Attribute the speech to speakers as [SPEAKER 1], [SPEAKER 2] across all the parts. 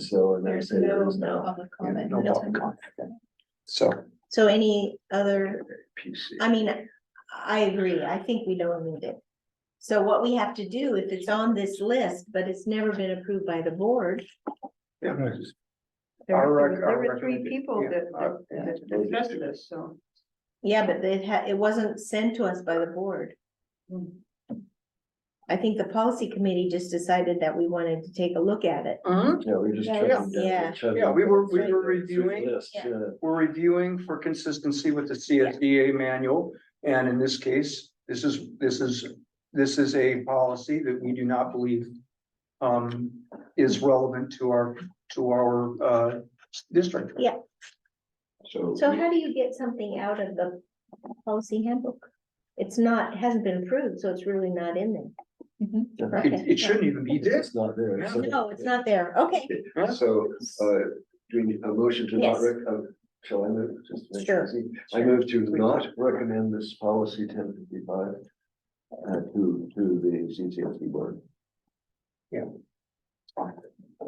[SPEAKER 1] So and
[SPEAKER 2] There's
[SPEAKER 1] there's there
[SPEAKER 2] no
[SPEAKER 1] is now
[SPEAKER 2] public comment.
[SPEAKER 1] no public comment. so
[SPEAKER 3] So any other,
[SPEAKER 1] PC.
[SPEAKER 3] I mean, I agree, I think we don't need it. So what we have to do, if it's on this list, but it's never been approved by the board.
[SPEAKER 1] Yeah.
[SPEAKER 2] There
[SPEAKER 1] Our
[SPEAKER 2] were,
[SPEAKER 1] rec-
[SPEAKER 2] there
[SPEAKER 1] our
[SPEAKER 2] were three
[SPEAKER 1] recommenda-
[SPEAKER 2] people
[SPEAKER 1] yeah,
[SPEAKER 2] that,
[SPEAKER 1] our-
[SPEAKER 2] that- that discussed this, so.
[SPEAKER 3] Yeah, but it had, it wasn't sent to us by the board. I think the policy committee just decided that we wanted to take a look at it.
[SPEAKER 1] Yeah, we just.
[SPEAKER 2] Yeah,
[SPEAKER 1] took them down.
[SPEAKER 3] yeah.
[SPEAKER 1] Took
[SPEAKER 4] Yeah, we were- we
[SPEAKER 1] them
[SPEAKER 4] were
[SPEAKER 1] through the
[SPEAKER 4] reviewing.
[SPEAKER 1] list,
[SPEAKER 3] Yeah.
[SPEAKER 1] yeah.
[SPEAKER 4] We're reviewing for consistency with the CSDA manual, and in this case, this is, this is, this is a policy that we do not believe. Um, is relevant to our, to our, uh, district.
[SPEAKER 3] Yeah.
[SPEAKER 1] So.
[SPEAKER 3] So how do you get something out of the policy handbook? It's not, hasn't been approved, so it's really not in there.
[SPEAKER 4] Mm-hmm. It, it shouldn't even be this.
[SPEAKER 1] It's not there.
[SPEAKER 4] Yeah.
[SPEAKER 1] so-
[SPEAKER 3] No, it's not there, okay,
[SPEAKER 4] not.
[SPEAKER 1] So, uh, do we need a motion to not,
[SPEAKER 3] Yes.
[SPEAKER 1] rec- uh, shall I move? Just to make it
[SPEAKER 3] Sure.
[SPEAKER 1] easy? I move to not recommend this policy ten fifty-five uh, to, to the CCSD board.
[SPEAKER 4] Yeah.
[SPEAKER 1] Oh,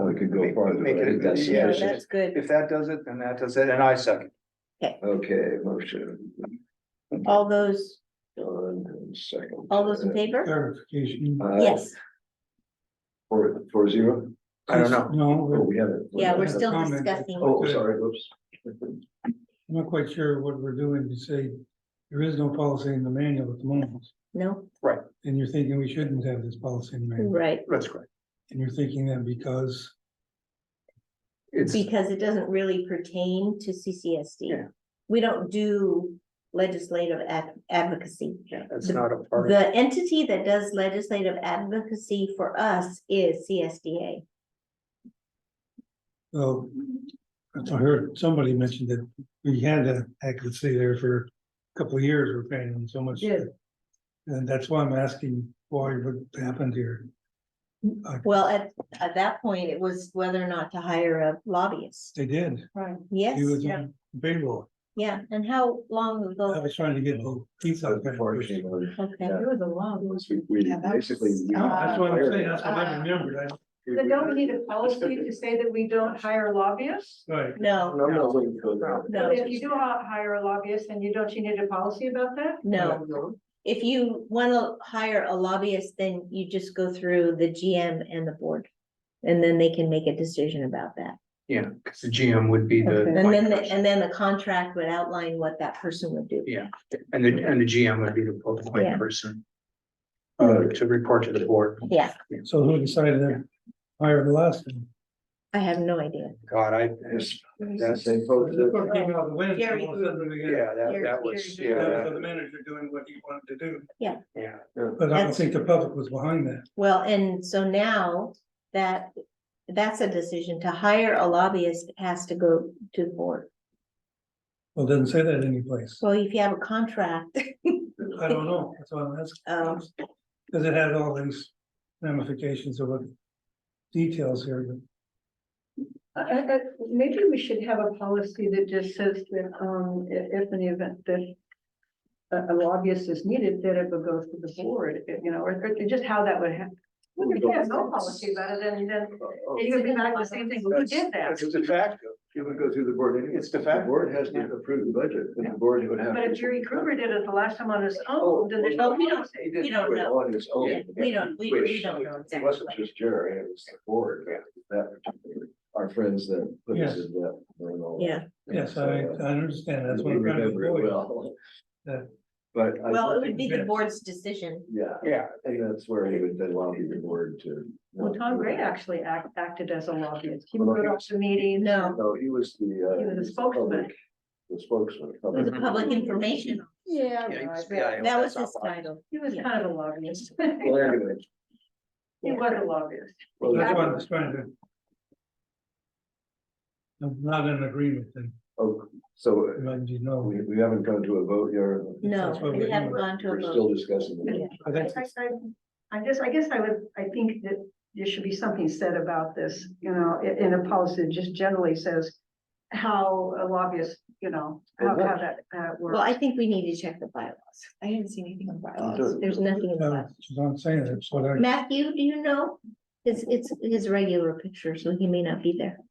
[SPEAKER 1] we could go
[SPEAKER 4] Make-
[SPEAKER 1] farther,
[SPEAKER 4] make
[SPEAKER 1] but I
[SPEAKER 4] it-
[SPEAKER 1] think that's
[SPEAKER 4] yeah,
[SPEAKER 3] so
[SPEAKER 4] it should-
[SPEAKER 1] sufficient.
[SPEAKER 3] that's good,
[SPEAKER 4] If that does it, then that does it, and I second.
[SPEAKER 1] Okay, motion,
[SPEAKER 3] all those,
[SPEAKER 1] John, and second.
[SPEAKER 3] all those in favor?
[SPEAKER 5] Clarification.
[SPEAKER 1] Uh,
[SPEAKER 3] Yes,
[SPEAKER 1] Four, four zero?
[SPEAKER 4] I don't know.
[SPEAKER 5] No,
[SPEAKER 1] Oh,
[SPEAKER 5] we're
[SPEAKER 1] we haven't.
[SPEAKER 3] yeah, we're
[SPEAKER 5] Have a
[SPEAKER 3] still
[SPEAKER 5] comment.
[SPEAKER 3] discussing,
[SPEAKER 1] Oh, sorry, whoops.
[SPEAKER 5] not quite sure what we're doing to say there is no policy in the manual at the moment.
[SPEAKER 3] no,
[SPEAKER 5] And you're thinking we shouldn't have this policy in the manual,
[SPEAKER 3] right,
[SPEAKER 4] That's correct.
[SPEAKER 5] and you're thinking that because,
[SPEAKER 4] It's,
[SPEAKER 3] because it doesn't really pertain to CCSD.
[SPEAKER 4] Yeah.
[SPEAKER 3] We don't do legislative ad- advocacy.
[SPEAKER 4] it's not a part. of
[SPEAKER 3] The entity that does legislative advocacy for us is CSDA.
[SPEAKER 5] well, I heard somebody mentioned that we had that accuracy there for a couple of years, we're paying them so much.
[SPEAKER 3] Yeah.
[SPEAKER 5] And that's why I'm asking why what happened here. Uh,
[SPEAKER 3] Well, at, at that point, it was whether or not to hire a lobbyist.
[SPEAKER 5] They did,
[SPEAKER 2] Right.
[SPEAKER 3] Yes,
[SPEAKER 5] he was on payroll,
[SPEAKER 3] yeah, and how long
[SPEAKER 5] I
[SPEAKER 3] ago?
[SPEAKER 5] was trying to get the piece out of that.
[SPEAKER 1] Unfortunately,
[SPEAKER 3] Okay,
[SPEAKER 1] Yeah.
[SPEAKER 2] It was a long.
[SPEAKER 1] we- We
[SPEAKER 2] Yeah, that was-
[SPEAKER 1] basically. we-
[SPEAKER 5] That's what I'm saying, that's what I
[SPEAKER 2] Uh,
[SPEAKER 5] remembered, I,
[SPEAKER 2] But don't we need a policy to say that we don't hire lobbyists?
[SPEAKER 5] right.
[SPEAKER 3] no,
[SPEAKER 1] No, I'm not looking for that.
[SPEAKER 3] No.
[SPEAKER 2] If you do hi- hire a lobbyist, then you don't, you need a policy about that?
[SPEAKER 3] no. If you wanna hire a lobbyist, then you just go through the GM and the board. And then they can make a decision about that.
[SPEAKER 4] Yeah, because the GM would be the.
[SPEAKER 2] Okay.
[SPEAKER 3] And then, the- and then the contract would outline what that person would do.
[SPEAKER 4] Yeah, and the, and the GM would be the
[SPEAKER 3] Yeah.
[SPEAKER 4] point person. Uh, to report to the board.
[SPEAKER 3] Yeah,
[SPEAKER 5] So who decided to hire the last one?
[SPEAKER 3] I have no idea.
[SPEAKER 4] God, I,
[SPEAKER 1] Yes,
[SPEAKER 4] that's,
[SPEAKER 1] Same folks
[SPEAKER 5] This
[SPEAKER 1] that-
[SPEAKER 5] one came out of the wind,
[SPEAKER 3] Gary
[SPEAKER 5] all of a sudden we got-
[SPEAKER 4] yeah, that, that was, yeah,
[SPEAKER 5] that was The
[SPEAKER 4] that-
[SPEAKER 5] manager doing what he wanted to do,
[SPEAKER 4] yeah.
[SPEAKER 5] but I don't
[SPEAKER 3] That's-
[SPEAKER 5] think the public was behind that.
[SPEAKER 3] Well, and so now that, that's a decision to hire a lobbyist has to go to the board.
[SPEAKER 5] Well, it doesn't say that anyplace.
[SPEAKER 3] So if you have a contract,
[SPEAKER 5] I don't know, that's why I'm
[SPEAKER 3] Um.
[SPEAKER 5] asking. Because it had all these ramifications of what details here, but
[SPEAKER 2] I, I- I- Uh, maybe we should have a policy that just says that, um, i- if an event that a a lobbyist is needed, that it would go to the board, you know, or, or just how that would happen. If you have no policy about it, then, then it would be back to the same thing, who did that?
[SPEAKER 4] That's de facto,
[SPEAKER 1] You would go through the board anyway.
[SPEAKER 4] It's de
[SPEAKER 1] The
[SPEAKER 4] facto.
[SPEAKER 1] board has to
[SPEAKER 4] Yeah.
[SPEAKER 1] approve the budget, and
[SPEAKER 4] Yeah.
[SPEAKER 1] the board would have.
[SPEAKER 2] But if
[SPEAKER 1] to-
[SPEAKER 2] Jerry Kruger did it the last time on his
[SPEAKER 1] Oh,
[SPEAKER 2] own, then there's no
[SPEAKER 3] Well, we don't-
[SPEAKER 2] policy.
[SPEAKER 3] we don't
[SPEAKER 1] It
[SPEAKER 3] know.
[SPEAKER 1] on its own.
[SPEAKER 3] Yeah, we don't- we- we
[SPEAKER 1] Which
[SPEAKER 3] don't know
[SPEAKER 1] It wasn't
[SPEAKER 3] exactly.
[SPEAKER 1] just Jerry, it was the board, that, particular- our friends that put us
[SPEAKER 5] Yes.
[SPEAKER 1] in that. and all that.
[SPEAKER 3] yeah,
[SPEAKER 5] yes,
[SPEAKER 1] So,
[SPEAKER 5] I,
[SPEAKER 1] uh,
[SPEAKER 5] I understand, that's
[SPEAKER 1] we
[SPEAKER 5] what I'm trying to
[SPEAKER 1] remember it
[SPEAKER 5] avoid.
[SPEAKER 1] well.
[SPEAKER 5] Yeah.
[SPEAKER 1] But. I
[SPEAKER 3] well, it would
[SPEAKER 1] think-
[SPEAKER 3] be the board's decision.
[SPEAKER 1] Yeah,
[SPEAKER 4] yeah,
[SPEAKER 1] I think that's where he would then lobby the board to.
[SPEAKER 2] Well, Tom Gray actually act, acted as a lobbyist. He wrote off the meetings.
[SPEAKER 3] No.
[SPEAKER 1] No, he was the. uh,
[SPEAKER 2] He was a
[SPEAKER 1] the
[SPEAKER 2] spokesman.
[SPEAKER 1] public- The spokesman.
[SPEAKER 3] It was a public information.
[SPEAKER 2] Yeah.
[SPEAKER 4] Yeah,
[SPEAKER 2] no, I
[SPEAKER 4] he's-
[SPEAKER 2] bet.
[SPEAKER 4] yeah,
[SPEAKER 3] That was
[SPEAKER 4] that's
[SPEAKER 3] his
[SPEAKER 4] not why.
[SPEAKER 3] title.
[SPEAKER 2] He was kind of a lobbyist.
[SPEAKER 1] Well, anyway,
[SPEAKER 2] He was a lobbyist.
[SPEAKER 1] well,
[SPEAKER 5] That's
[SPEAKER 1] that's-
[SPEAKER 5] what I was trying to. I'm not in agreement, then,
[SPEAKER 1] Oh, so uh,
[SPEAKER 5] as you know.
[SPEAKER 1] we, we haven't gone to a vote yet.
[SPEAKER 3] No,
[SPEAKER 5] That's what
[SPEAKER 3] we
[SPEAKER 5] we're
[SPEAKER 3] haven't
[SPEAKER 5] doing.
[SPEAKER 3] gone to a
[SPEAKER 1] We're
[SPEAKER 3] vote.
[SPEAKER 1] still discussing. it.
[SPEAKER 2] Yeah.
[SPEAKER 5] I think
[SPEAKER 2] I, I, I just, I guess I would, I think that there should be something said about this, you know, in, in a policy that just generally says how a lobbyist, you know, how, how that, uh,
[SPEAKER 3] Well, I
[SPEAKER 2] works.
[SPEAKER 3] think we need to check the bylaws.
[SPEAKER 6] I didn't see anything on
[SPEAKER 1] You do.
[SPEAKER 6] bylaws.
[SPEAKER 3] There's nothing in the
[SPEAKER 5] Uh,
[SPEAKER 3] bylaws.
[SPEAKER 5] She's not saying it, so I,
[SPEAKER 3] Matthew, do you know? It's, it's his regular picture, so he may not be there.